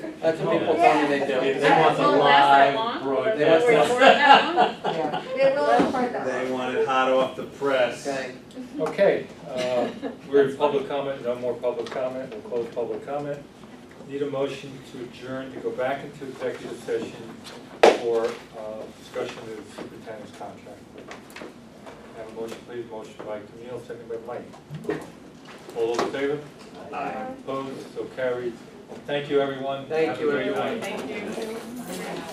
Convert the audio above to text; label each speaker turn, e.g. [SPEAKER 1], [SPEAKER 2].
[SPEAKER 1] That's what people tell me they do.
[SPEAKER 2] They want the
[SPEAKER 3] Won't last
[SPEAKER 2] live
[SPEAKER 3] that long?
[SPEAKER 2] broadcast.
[SPEAKER 1] They want the-
[SPEAKER 3] Or for that long?
[SPEAKER 4] Yeah, they will for that.
[SPEAKER 5] They want it hot off the press.
[SPEAKER 1] Okay.
[SPEAKER 2] Okay, uh, we're in public comment, no more public comment, we'll close public comment. Need a motion to adjourn, to go back into executive session for uh, discussion of the superintendent's contract. Have a motion, please, motion by Camille, second by Mike. All those in favor?
[SPEAKER 5] Aye.
[SPEAKER 2] Opposed, so carried. Thank you, everyone.
[SPEAKER 1] Thank
[SPEAKER 2] Have a
[SPEAKER 1] you,
[SPEAKER 2] great
[SPEAKER 1] everyone.
[SPEAKER 2] night.
[SPEAKER 3] Thank you.